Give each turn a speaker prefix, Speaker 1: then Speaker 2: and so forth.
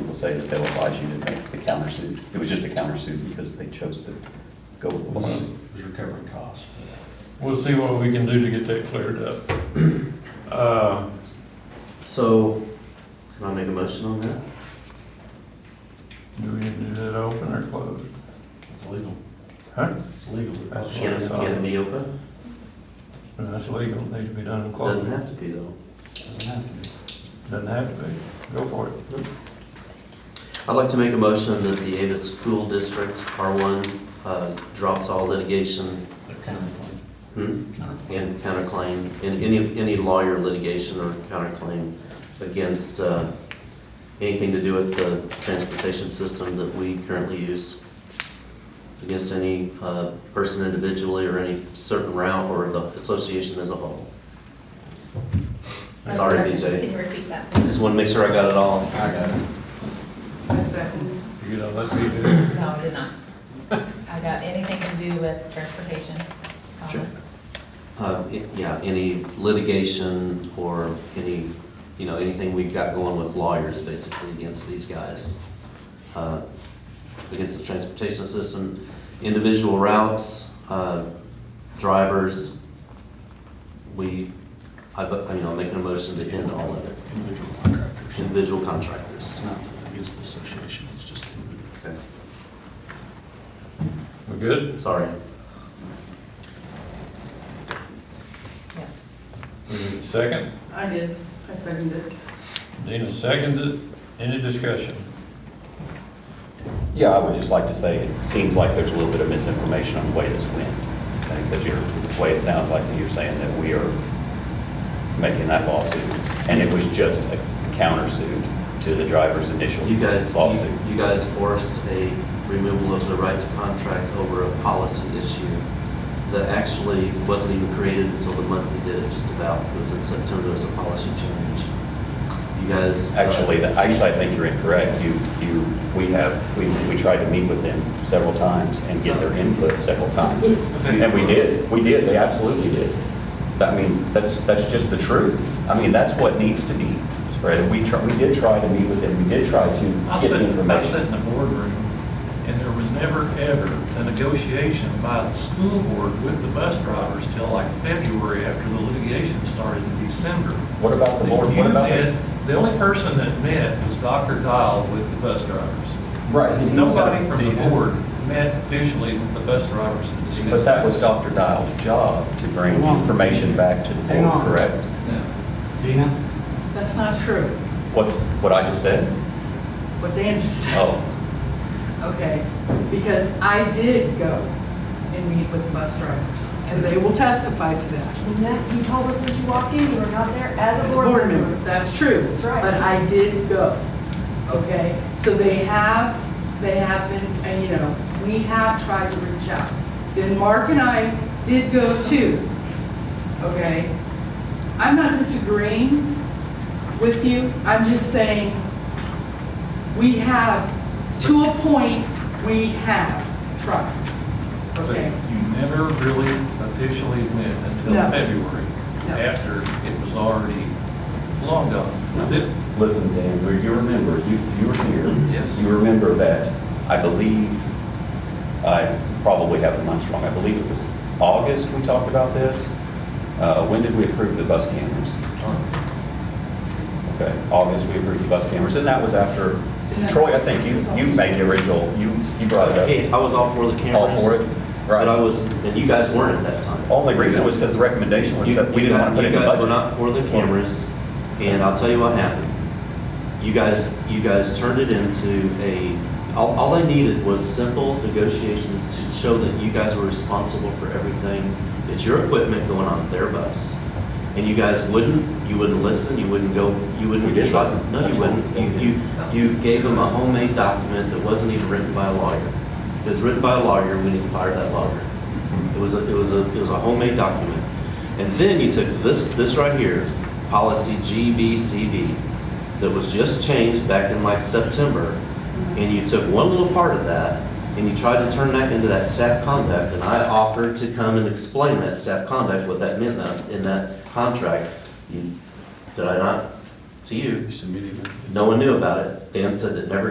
Speaker 1: will say that they'll advise you to make the countersuit. It was just a countersuit because they chose to go with the
Speaker 2: Mm-hmm.
Speaker 1: lawsuit.
Speaker 3: Who's recovering costs?
Speaker 4: We'll see what we can do to get that cleared up. Uh,
Speaker 2: So, can I make a motion on that?
Speaker 4: Do we need to do that open or closed?
Speaker 3: It's legal.
Speaker 4: Huh?
Speaker 3: It's legal.
Speaker 4: That's what
Speaker 2: Can it,
Speaker 4: it's on.
Speaker 2: can it be open?
Speaker 4: No, That's legal, it needs to be done in
Speaker 2: Doesn't
Speaker 4: closed.
Speaker 2: have to be though.
Speaker 3: Doesn't have to be.
Speaker 4: Doesn't have to be. Go for it.
Speaker 2: I'd like to make a motion that the Ada School District R1 uh, drops all litigation
Speaker 3: They're counterclaim.
Speaker 2: hmm,
Speaker 3: Counterclaim.
Speaker 2: and counterclaim, and any, any lawyer litigation or counterclaim against uh, anything to do with the transportation system that we currently use, against any uh, person individually or any certain route or the association as a whole.
Speaker 5: I
Speaker 2: Sorry,
Speaker 5: second.
Speaker 2: BJ.
Speaker 5: Can you repeat that?
Speaker 2: I Just want to make sure I got it all.
Speaker 3: I got it.
Speaker 5: I second.
Speaker 4: You know, let's be good.
Speaker 5: No, I did not. I got anything to do with transportation. um,
Speaker 1: Sure.
Speaker 2: Uh, i- Yeah, any litigation or any, you know, anything we've got going with lawyers basically against these guys. uh, Against the transportation system, individual routes, uh, drivers. We, I, bu- I mean, I'm making a motion to end all of it.
Speaker 3: Individual contractors.
Speaker 2: Individual contractors.
Speaker 3: It's not against the association, it's just individual.
Speaker 2: Okay.
Speaker 4: We good?
Speaker 2: Sorry.
Speaker 5: Yeah.
Speaker 4: We need a second.
Speaker 6: I did, I seconded it.
Speaker 4: Dina seconded. it. Any discussion?
Speaker 1: Yeah, I would just like to say, it seems like there's a little bit of misinformation on the way this went. Because you're, the way it sounds like you're saying that we are making that lawsuit. And it was just a countersuit to the driver's initial
Speaker 2: You guys,
Speaker 1: lawsuit.
Speaker 2: you- you guys forced a removal of the right to contract over a policy issue that actually wasn't even created until the month we did it, just about. It was in September, there was a policy change. You guys. uh,
Speaker 1: Actually, that- actually, I think you're incorrect. You, you, we have, we, we tried to meet with them several times and get their input several times. And we did, we did, they absolutely did. I mean, that's, that's just the truth. I mean, that's what needs to be spread. We tr we did try to meet with them, we did try
Speaker 7: I
Speaker 1: to get
Speaker 7: sat,
Speaker 1: the
Speaker 7: I sat in
Speaker 1: information.
Speaker 7: the boardroom, and there was never, ever a negotiation by the school board with the bus drivers till like February after the litigation started in December.
Speaker 1: What about the board, what
Speaker 7: You
Speaker 1: about
Speaker 7: met-
Speaker 1: the?
Speaker 7: The only person that met was Dr. Dial with the bus drivers.
Speaker 1: Right. he- he's got-
Speaker 7: Nobody from the board met officially with the bus drivers to discuss.
Speaker 1: But that was Dr. Dial's job to bring
Speaker 3: Hang on.
Speaker 1: information back to the
Speaker 3: Hang
Speaker 1: board,
Speaker 3: on.
Speaker 1: correct?
Speaker 7: No.
Speaker 3: Dina?
Speaker 6: That's not true,
Speaker 1: What's, what I just said?
Speaker 6: what Dan just said.
Speaker 1: Oh.
Speaker 6: Okay, because I did go and meet with the bus drivers, and they will testify to that.
Speaker 8: And that, you told us as you walked in, you were not there as
Speaker 6: As
Speaker 8: a board
Speaker 6: member,
Speaker 8: member.
Speaker 6: that's true.
Speaker 8: That's right.
Speaker 6: But I did go, okay? So they have, they have been, and you know, we have tried to reach out. Then Mark and I did go too, okay? I'm not disagreeing with you, I'm just saying, we have, to a point, we have tried,
Speaker 7: But
Speaker 6: okay?
Speaker 7: you never really officially met until
Speaker 6: No.
Speaker 7: February,
Speaker 6: No.
Speaker 7: after it was already long gone. Did-
Speaker 1: Listen, Dan, we- you remember, you, you were here.
Speaker 7: Yes.
Speaker 1: You remember that, I believe, I probably have the months wrong, I believe it was August we talked about this. Uh, when did we approve the bus cameras? Okay, August we approved the bus cameras, and that was after, Troy, I think you, you made the original, you, you brought
Speaker 2: Hey,
Speaker 1: it
Speaker 2: I was all for the
Speaker 1: up.
Speaker 2: cameras.
Speaker 1: All for it?
Speaker 2: But I
Speaker 1: Right.
Speaker 2: was, and you guys weren't at that time.
Speaker 1: Only reason was because the recommendation was
Speaker 2: You-
Speaker 1: that we
Speaker 2: you
Speaker 1: didn't want
Speaker 2: guys-
Speaker 1: to put it in the
Speaker 2: You guys
Speaker 1: budget.
Speaker 2: were not for the cameras, and I'll tell you what happened. You guys, you guys turned it into a, all, all they needed was simple negotiations to show that you guys were responsible for everything. It's your equipment going on their bus. And you guys wouldn't, you wouldn't listen, you wouldn't go, you wouldn't.
Speaker 1: We did
Speaker 2: try-
Speaker 1: listen.
Speaker 2: No,
Speaker 1: That's
Speaker 2: you
Speaker 1: what
Speaker 2: wouldn't.
Speaker 1: we
Speaker 2: You, you, you gave them a homemade document that wasn't even written by a lawyer. If it was written by a lawyer, we didn't fire that lawyer. It was a, it was a, it was a homemade document. And then you took this, this right here, policy GBCB, that was just changed back in like September. And you took one little part of that and you tried to turn that into that staff conduct. And I offered to come and explain that staff conduct, what that meant in that- in that contract. You- Did I not? To you?
Speaker 3: You submitted it.
Speaker 2: No one knew about it. Dan said that never